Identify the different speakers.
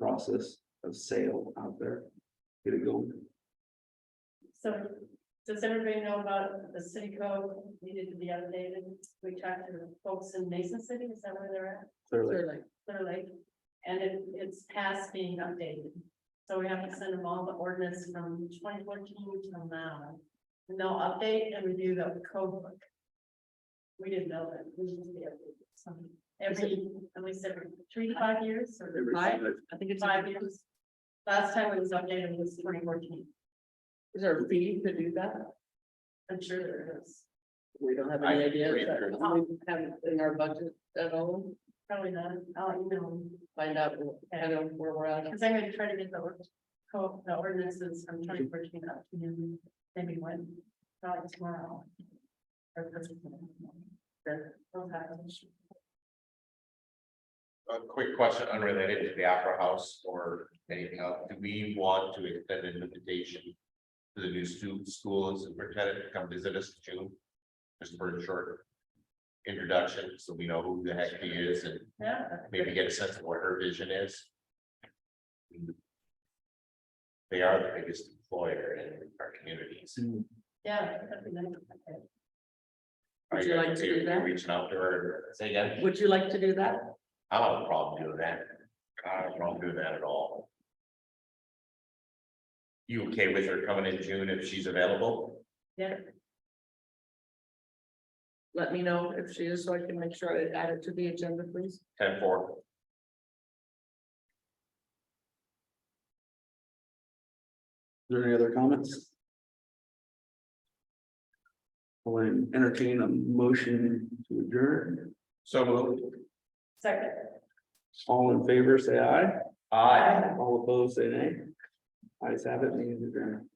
Speaker 1: analysis of sale out there. Get it going.
Speaker 2: So does everybody know about the city code needed to be updated? We talked to the folks in Mason City, is that where they're at?
Speaker 1: Clearly,
Speaker 2: Clear Lake. And it, it's past being updated. So we have to send them all the ordinance from twenty fourteen till now. And they'll update and review the code book. We didn't know that. We need to be updated. So Every, at least every three to five years or
Speaker 1: every
Speaker 2: five,
Speaker 1: single-
Speaker 3: I think it's,
Speaker 2: five years. Last time it was updated was twenty fourteen.
Speaker 3: is there a fee to do that?
Speaker 2: I'm sure there is.
Speaker 3: We don't have any idea. is that- We Have it in our budget at all,
Speaker 2: Probably not, I'll email them,
Speaker 3: find out kind of where we're at.
Speaker 2: because I'm gonna try to get the, or- co- the ordinances from twenty fourteen up to you, maybe when, probably tomorrow. Or this weekend. Sure, we'll have it.
Speaker 4: A quick question unrelated to the Opera House or anything else. Do we want to extend an invitation? To the new student school and superintendent to come visit us in June? Just for a short. Introduction, so we know who the heck he is and
Speaker 2: Yeah.
Speaker 4: maybe get a sense of what her vision is. They are the biggest employer in our communities.
Speaker 2: Yeah. that'd be nice. Okay.
Speaker 3: Would you like to do that?
Speaker 4: Reaching out to her, say again.
Speaker 3: Would you like to do that?
Speaker 4: I don't have a problem doing that. I don't have a problem doing that at all. You okay with her coming in June if she's available?
Speaker 2: Yeah,
Speaker 3: Let me know if she is, so I can make sure I add it to the agenda, please.
Speaker 4: Ten four,
Speaker 1: Is there any other comments? I'll entertain a motion to adjourn.
Speaker 4: so moved.
Speaker 2: second.
Speaker 1: All in favor, say aye.
Speaker 4: Aye.
Speaker 1: All opposed, say nay. Ayes have it, meeting is adjourned.